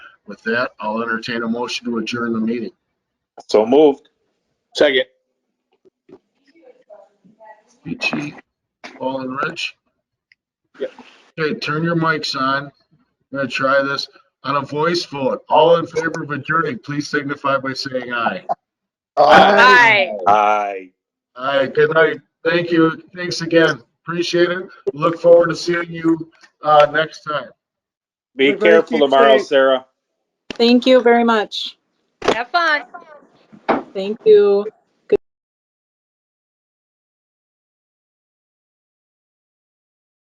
With that, I'll entertain a motion to adjourn the meeting. So moved. Second. BT, Paul and Rich? Yep. Okay, turn your mics on. I'm gonna try this on a voice vote. All in favor of adjourning, please signify by saying aye. Aye. Aye. Aye, good night. Thank you. Thanks again. Appreciate it. Look forward to seeing you, uh, next time. Be Everybody careful keep tomorrow, safe. Sarah. Thank you very much. Have fun. Thank you.